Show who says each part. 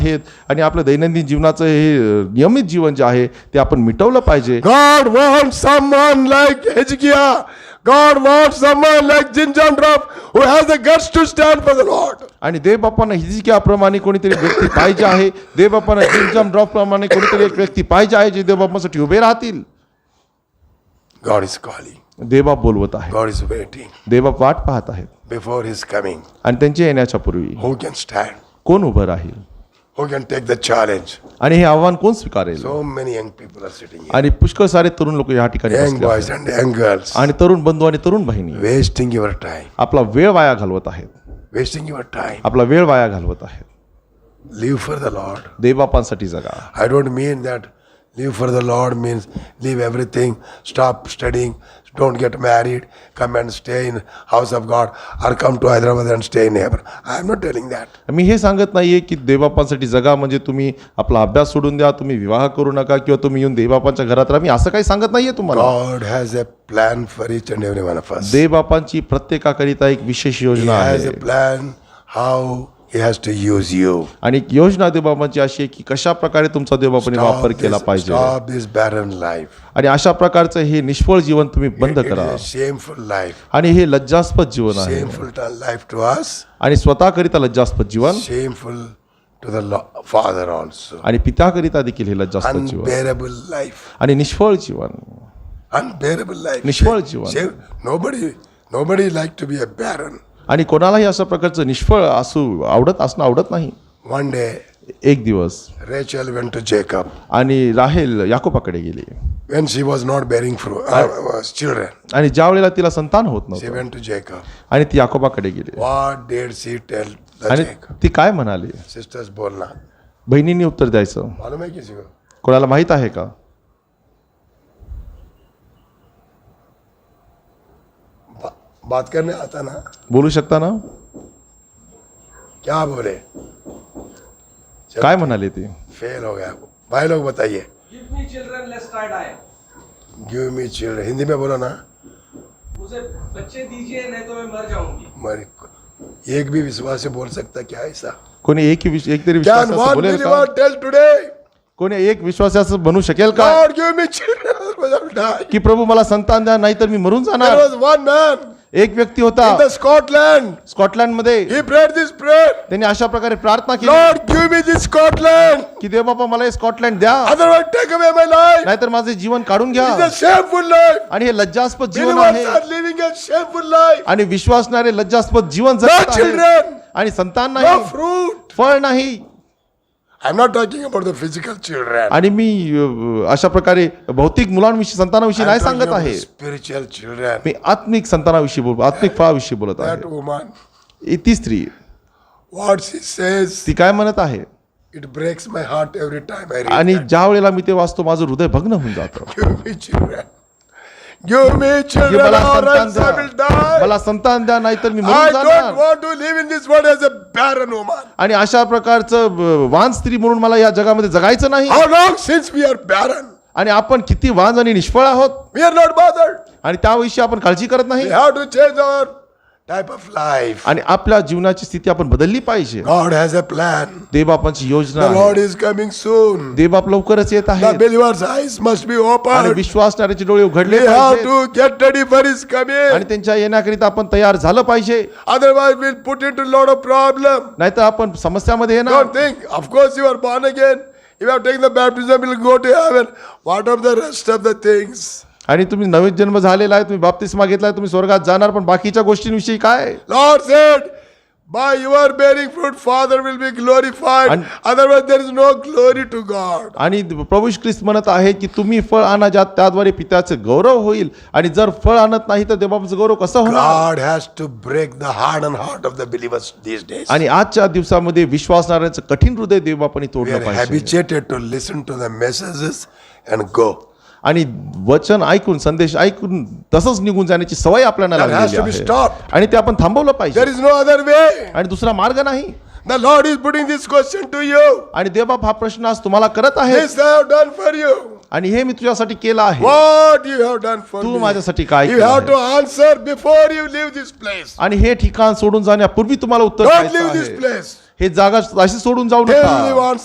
Speaker 1: आहेत आणि आपलं दैनंदिन जीवनाचं हे अ, नियमित जीवन जे आहे ते आपण मिटवलं पाहिजे
Speaker 2: God wants someone like Hezekiah. God wants someone like Jim John Ruff who has the guts to stand for the Lord.
Speaker 1: आणि देवबापांना हिजकियाप्रमाणे कोणीतरी व्यक्ती पाहिजे आहे देवबापांना जिमजाम ड्रॉप प्रमाणे कोणीतरी एक व्यक्ती पाहिजे आहे जे देवबापासाठी उभे राहतील
Speaker 2: God is calling.
Speaker 1: देवबाप बोलवत आहे
Speaker 2: God is waiting
Speaker 1: देवबाप वाट पाहत आहेत
Speaker 2: before his coming.
Speaker 1: आणि त्यांच्या येण्याच्या पूर्वी
Speaker 2: Who can stand?
Speaker 1: कोण उभं राहील
Speaker 2: Who can take the challenge?
Speaker 1: आणि हे आव्हान कोण स्वीकारेल
Speaker 2: So many young people are sitting here.
Speaker 1: आणि पुष्कळ सारे तरुण लोक या ठिकाणी
Speaker 2: Young
Speaker 1: बसले आहेत.
Speaker 2: boys and young girls.
Speaker 1: आणि तरुण बंधू आणि तरुण बहिणी
Speaker 2: Wasting your time.
Speaker 1: आपला वेळ वाया घालवत आहेत
Speaker 2: Wasting your time.
Speaker 1: आपला वेळ वाया घालवत आहेत
Speaker 2: Live for the Lord.
Speaker 1: देवबापांसाठी जगा
Speaker 2: I don't mean that live for the Lord means leave everything, stop studying, don't get married, come and stay in house of God or come to Hyderabad and stay in heaven. I am not telling that.
Speaker 1: मी हे सांगत नाहीये की देवबापांसाठी जगा म्हणजे तुम्ही आपला अभ्यास सोडून द्या तुम्ही विवाह करू नका किंवा तुम्ही येऊन देवबापांच्या घरात राहा मी असं काही सांगत नाहीये तुम्हाला
Speaker 2: God has a plan for each and every one of us. He
Speaker 1: देवबापांची प्रत्येकाकरिता एक विशेष योजना
Speaker 2: has
Speaker 1: आहे
Speaker 2: a plan how he has to use you.
Speaker 1: आणि एक योजना देवबापांची अशी आहे की कशा प्रकारे तुमचा देवबापाने वापर केला
Speaker 2: Stop this,
Speaker 1: पाहिजे
Speaker 2: stop this barren life.
Speaker 1: आणि अशा प्रकारचं हे निष्फळ जीवन तुम्ही बंद
Speaker 2: It
Speaker 1: करा
Speaker 2: is a shameful life.
Speaker 1: आणि हे लज्जास्पद जीवन आहे
Speaker 2: Shameful to life to us,
Speaker 1: आणि स्वतःकरिता लज्जास्पद जीवन
Speaker 2: shameful to the Lo- Father also.
Speaker 1: आणि पित्याकरिता देखील हे लज्जास्पद जीवन
Speaker 2: Unbearable life.
Speaker 1: आणि निष्फळ जीवन
Speaker 2: unbearable life.
Speaker 1: निष्फळ
Speaker 2: Say-
Speaker 1: Jeevan.
Speaker 2: say, nobody, nobody like to be a barren.
Speaker 1: आणि कोणालाही अशा प्रकारचं निष्फळ असू आवडत असणं आवडत नाही
Speaker 2: One day,
Speaker 1: एक दिवस
Speaker 2: Rachel went to Jacob
Speaker 1: आणि राहेल याकोबाकडे गेली
Speaker 2: when she was not bearing fruit, uh, uh, children.
Speaker 1: आणि ज्या वेळेला तिला संतान होत
Speaker 2: She
Speaker 1: नव्हतं
Speaker 2: went to Jacob.
Speaker 1: आणि ती याकोबाकडे गेली
Speaker 2: What did she tell the
Speaker 1: आणि
Speaker 2: Jacob?
Speaker 1: ती काय म्हणाली
Speaker 2: Sisters बोलना
Speaker 1: बहिणींनी उत्तर द्यायचं
Speaker 2: मालूम है किसी को
Speaker 1: कोणाला माहीत आहे का
Speaker 2: बा, बात करने आता ना
Speaker 1: बोलू शकता ना
Speaker 2: क्या बोले
Speaker 1: काय म्हणाली ती
Speaker 2: फेल हो गया भाई लोग बताइए
Speaker 3: Give me children lest I die.
Speaker 2: Give me children Hindi में बोलो ना
Speaker 3: मुझे बच्चे दीजिए नहीं तो मैं मर जाऊंगी
Speaker 2: मरी एक भी विश्वास से बोल सकता क्या ऐसा
Speaker 1: कोणी एक विश- एक तरी
Speaker 2: Can
Speaker 1: विश्वास
Speaker 2: one
Speaker 1: बोलेल का
Speaker 2: believer tell today
Speaker 1: कोणी एक विश्वास बनू शकेल का
Speaker 2: God give me children, otherwise I'll die.
Speaker 1: की प्रभू मला संतान द्या नाहीतर मी मरून
Speaker 2: There
Speaker 1: जाणार
Speaker 2: was one man in
Speaker 1: एक व्यक्ती होता
Speaker 2: the Scotland.
Speaker 1: स्कॉटलँड मध्ये
Speaker 2: He prayed this prayer.
Speaker 1: त्यांनी अशा प्रकारे प्रार्थना केली
Speaker 2: Lord, give me this Scotland.
Speaker 1: की देव बाबा मला हे स्कॉटलँड द्या
Speaker 2: Otherwise, take away my life.
Speaker 1: नाहीतर माझे जीवन काढून घ्या
Speaker 2: It's a shameful life.
Speaker 1: आणि हे लज्जास्पद जीवन आहे
Speaker 2: Believers are living a shameful life.
Speaker 1: आणि विश्वासणारे लज्जास्पद जीवन
Speaker 2: No
Speaker 1: जगत आहे
Speaker 2: children,
Speaker 1: आणि संतान
Speaker 2: no
Speaker 1: नाही
Speaker 2: fruit.
Speaker 1: फळ नाही
Speaker 2: I'm not talking about the physical children.
Speaker 1: आणि मी अ, अशा प्रकारे भौतिक मुलांविषयी संतानाविषयी नाही
Speaker 2: I'm talking
Speaker 1: सांगत
Speaker 2: about
Speaker 1: आहे
Speaker 2: spiritual children.
Speaker 1: मी आत्मिक संतानाविषयी बोलतो आत्मिक फळाविषयी बोलत
Speaker 2: That
Speaker 1: आहे
Speaker 2: woman,
Speaker 1: इ- ती स्त्री
Speaker 2: what she says,
Speaker 1: ती काय म्हणत आहे
Speaker 2: it breaks my heart every time I read
Speaker 1: आणि
Speaker 2: that.
Speaker 1: ज्या वेळेला मी ते वाचतो माझं हृदय भग्न होऊन जातं
Speaker 2: Give me children. Give me
Speaker 1: की
Speaker 2: children,
Speaker 1: मला संतान
Speaker 2: or else I will
Speaker 1: द्या
Speaker 2: die.
Speaker 1: मला संतान द्या नाहीतर मी
Speaker 2: I
Speaker 1: मरून
Speaker 2: don't
Speaker 1: जाणार
Speaker 2: want to live in this world as a barren woman.
Speaker 1: आणि अशा प्रकारचं अ, वान स्त्री म्हणून मला या जगामध्ये जगायचं नाही
Speaker 2: How long since we are barren?
Speaker 1: आणि आपण किती वांज आणि निष्फळ आहोत
Speaker 2: We are not bothered.
Speaker 1: आणि त्याविषयी आपण काळजी करत
Speaker 2: We
Speaker 1: नाही
Speaker 2: have to change our type of life.
Speaker 1: आणि आपल्या जीवनाची स्थिती आपण बदलली पाहिजे
Speaker 2: God has a plan.
Speaker 1: देवबापांची योजना
Speaker 2: The Lord
Speaker 1: आहे.
Speaker 2: is coming soon.
Speaker 1: देवबाप लवकरच येत
Speaker 2: The
Speaker 1: आहे
Speaker 2: believer's eyes must be
Speaker 1: आणि
Speaker 2: opened.
Speaker 1: विश्वासणाऱ्याचे डोळे
Speaker 2: We
Speaker 1: उघडले
Speaker 2: have
Speaker 1: पाहिजेत.
Speaker 2: to get ready for His
Speaker 1: आणि
Speaker 2: coming.
Speaker 1: त्यांच्या येण्याकरिता आपण तयार झालं पाहिजे
Speaker 2: Otherwise, we'll put into a lot of problem.
Speaker 1: नाहीतर आपण समस्यामध्ये येणार
Speaker 2: Don't think. Of course, you are born again. If you have taken the baptism, you'll go to heaven. What of the rest of the things?
Speaker 1: आणि तुम्ही नवीन जन्म झालेला आहे तुम्ही बाप्तिस्मा घेतलाय तुम्ही स्वर्गात जाणार पण बाकीच्या गोष्टींविषयी काय
Speaker 2: Lord said, By your bearing fruit, Father will be glorified.
Speaker 1: And-
Speaker 2: Otherwise, there is no glory to God.
Speaker 1: आणि प्रभू ख्रिस्त म्हणत आहे की तुम्ही फळ आणा ज्यात त्याद्वारे पित्याचं गौरव होईल आणि जर फळ आणत नाही तर देवबापाचं गौरव कसं होणार
Speaker 2: God has to break the heart and heart of the believers these days.
Speaker 1: आणि आजच्या दिवसामध्ये विश्वासणाऱ्यांचं कठीण हृदय देवबापाने
Speaker 2: We
Speaker 1: तोडलं
Speaker 2: are
Speaker 1: पाहिजे
Speaker 2: habituated to listen to the messages and go.
Speaker 1: आणि वचन ऐकून संदेश ऐकून तसंच निघून जाण्याची सवय आपल्याला
Speaker 2: That has
Speaker 1: लागलेली
Speaker 2: to be
Speaker 1: आहे
Speaker 2: stopped.
Speaker 1: आणि ते आपण थांबवलं
Speaker 2: There
Speaker 1: पाहिजे
Speaker 2: is no other way.
Speaker 1: आणि दुसरा मार्ग नाही
Speaker 2: The Lord is putting this question to you.
Speaker 1: आणि देवबाप हा प्रश्न आज तुम्हाला करत आहे
Speaker 2: This I have done for you.
Speaker 1: आणि हे मी तुझ्यासाठी केलं आहे
Speaker 2: What you have done for
Speaker 1: Tu
Speaker 2: me.
Speaker 1: माझ्यासाठी काय
Speaker 2: You
Speaker 1: केलं
Speaker 2: have to
Speaker 1: आहे?
Speaker 2: answer before you leave this place.
Speaker 1: आणि हे ठिकाण सोडून जाण्यापूर्वी तुम्हाला उत्तर
Speaker 2: Don't
Speaker 1: द्यायचं
Speaker 2: leave this
Speaker 1: आहे.
Speaker 2: place.
Speaker 1: हे जागा अशी सोडून जाऊ
Speaker 2: Till we
Speaker 1: नका
Speaker 2: want